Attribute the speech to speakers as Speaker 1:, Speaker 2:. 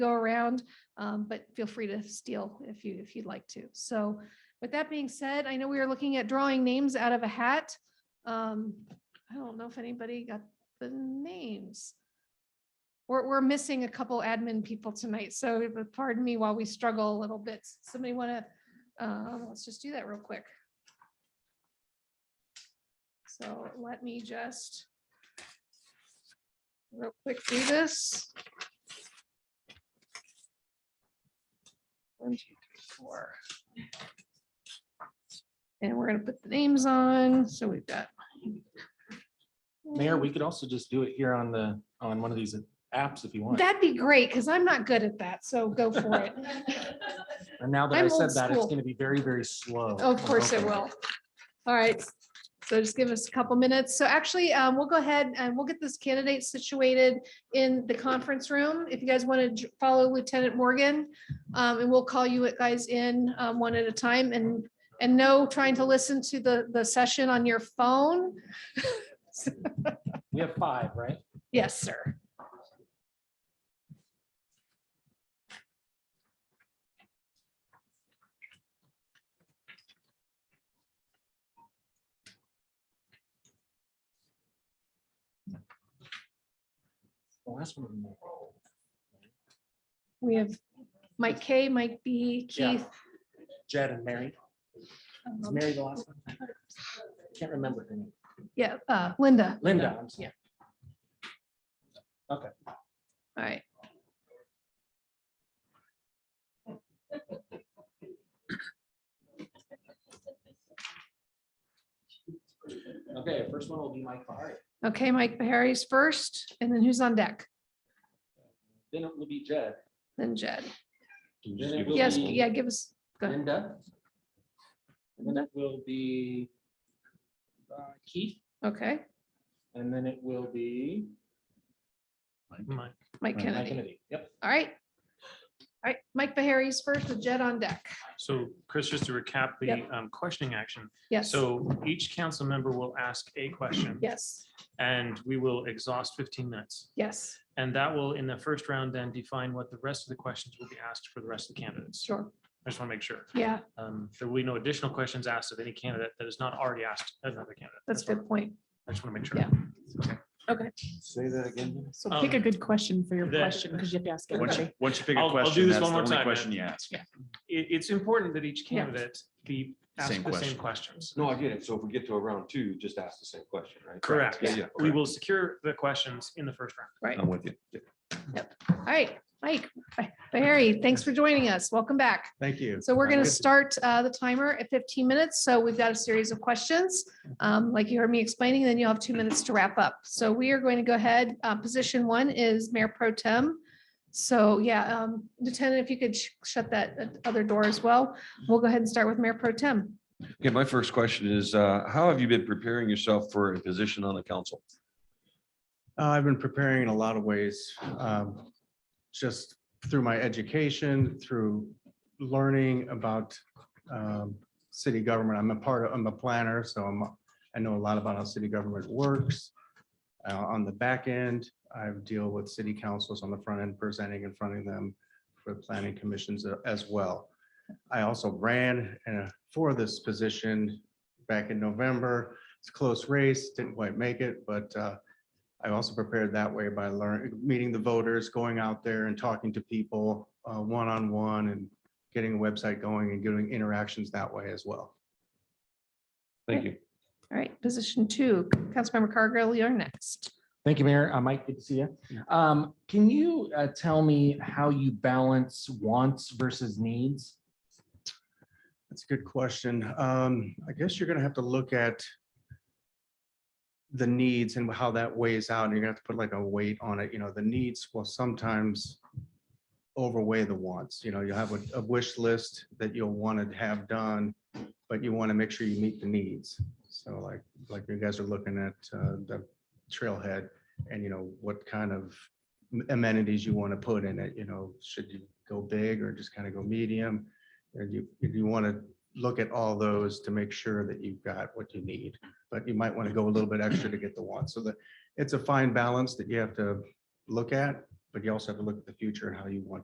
Speaker 1: go around, um, but feel free to steal if you, if you'd like to. So with that being said, I know we are looking at drawing names out of a hat. Um, I don't know if anybody got the names. We're, we're missing a couple admin people tonight, so pardon me while we struggle a little bit. Somebody want to, uh, let's just do that real quick. So let me just real quick do this. One, two, three, four. And we're gonna put the names on, so we've got.
Speaker 2: Mayor, we
Speaker 1: Mm.
Speaker 2: could also just do it here on the, on one of these apps if you want.
Speaker 1: That'd be great, because I'm not good at that, so go for it.
Speaker 2: And now that
Speaker 1: I'm
Speaker 2: I
Speaker 1: old
Speaker 2: said that, it's
Speaker 1: school.
Speaker 2: gonna be very, very slow.
Speaker 1: Of course it
Speaker 2: Okay.
Speaker 1: will. All right, so just give us a couple minutes. So actually, um, we'll go ahead and we'll get this candidate situated in the conference room. If you guys want to follow Lieutenant Morgan, um, and we'll call you guys in, um, one at a time and, and no trying to listen to the, the session on your phone.
Speaker 2: We have five, right?
Speaker 1: Yes, sir.
Speaker 2: The last one.
Speaker 1: We have Mike K, Mike B,
Speaker 2: Yeah.
Speaker 1: Keith.
Speaker 2: Jed and Mary. Is
Speaker 1: um,
Speaker 2: Mary the last one? Can't remember her name.
Speaker 1: Yeah, uh, Linda.
Speaker 2: Linda, I'm sorry.
Speaker 1: All right.
Speaker 2: Okay, first one will be Mike Bahari.
Speaker 1: Okay, Mike Bahari's first, and then who's on deck?
Speaker 2: Then it will be Jed.
Speaker 1: Then Jed.
Speaker 3: Can you
Speaker 2: Then
Speaker 3: just
Speaker 2: it
Speaker 3: give
Speaker 2: will
Speaker 3: us
Speaker 1: Yes,
Speaker 3: the-
Speaker 4: Mm.
Speaker 2: be
Speaker 1: yeah, Mm-hmm. give us, go ahead.
Speaker 2: Linda. Then it will be uh, Keith,
Speaker 1: okay,
Speaker 2: and then it will be Mike
Speaker 1: Mike Kennedy.
Speaker 2: Kennedy. Yep.
Speaker 1: All right. All right, Mike Bahari's first, with Jed on deck.
Speaker 4: So Chris, just to recap the
Speaker 1: Yep.
Speaker 4: um, questioning action.
Speaker 1: Yes,
Speaker 4: So each council member will ask a question
Speaker 1: yes,
Speaker 4: and we will exhaust 15 minutes.
Speaker 1: yes,
Speaker 4: And that will, in the first round, then define what the rest of the questions will be asked for the rest of the candidates.
Speaker 1: sure.
Speaker 4: I just want to make sure.
Speaker 1: Yeah,
Speaker 4: Um, There will be no additional questions asked of any candidate that is not already asked of another candidate.
Speaker 1: that's a good point.
Speaker 4: I just want to make sure.
Speaker 1: Yeah.
Speaker 3: Say that again.
Speaker 5: So pick a
Speaker 4: Um,
Speaker 5: good question for your
Speaker 4: the-
Speaker 5: question, because you have to ask
Speaker 3: Once
Speaker 5: everybody.
Speaker 3: you, once you pick a
Speaker 4: I'll- I'll do
Speaker 3: question,
Speaker 4: this
Speaker 3: that's the
Speaker 4: one more
Speaker 3: only
Speaker 4: time,
Speaker 3: question you ask.
Speaker 4: It- It's important that each
Speaker 1: Yeah.
Speaker 4: candidate be
Speaker 3: Same
Speaker 4: asked the same
Speaker 3: question.
Speaker 4: questions.
Speaker 6: No, I get it. So if we get to a round two, just ask the same question, right?
Speaker 4: Correct.
Speaker 6: Yeah, yeah.
Speaker 4: We will secure the questions in the first round.
Speaker 3: I'm with you.
Speaker 1: All right, Mike Bahari, thanks for joining us. Welcome back.
Speaker 3: Thank you.
Speaker 1: So we're going to start uh, the timer at 15 minutes. So we've got a series of questions. um, Like you heard me explaining, then you'll have two minutes to wrap up. So we are going to go ahead. uh, Position one is Mayor Pro Tem. So yeah, um, Lieutenant, if you could sh- shut that uh, other door as well. We'll go ahead and start with Mayor Pro Tem.
Speaker 7: Okay, my first question is, uh, how have you been preparing yourself for a position on the council?
Speaker 8: Uh, I've been preparing in a lot of ways, um, just through my education, through learning about um, city government. I'm a part of, I'm a planner, so I'm, I know a lot about how city government works. Uh, On the back end, I deal with city councils on the front end, presenting in front of them for planning commissions a- as well. I also ran uh, for this position back in November. It's a close race, didn't quite make it, but uh, I also prepared that way by learning, meeting the voters, going out there and talking to people uh, one-on-one and getting a website going and doing interactions that way as well.
Speaker 7: Thank you.
Speaker 1: All right, position two, Councilmember Cargill, you're next.
Speaker 2: Thank you, Mayor. Uh, Mike, good to see you. Um, Can you uh, tell me how you balance wants versus needs?
Speaker 8: That's a good question. Um, I guess you're gonna have to look at the needs and how that weighs out. and You're gonna have to put like a weight on it. You know, the needs will sometimes overweigh the wants. You know, you'll have a- a wish list that you'll want to have done, but you want to make sure you meet the needs. So like, like you guys are looking at uh, the trailhead and you know, what kind of amenities you want to put in it, you know, should you go big or just kind of go medium? And you, if you want to look at all those to make sure that you've got what you need, but you might want to go a little bit extra to get the one. So that it's a fine balance that you have to look at, but you also have to look at the future and how you want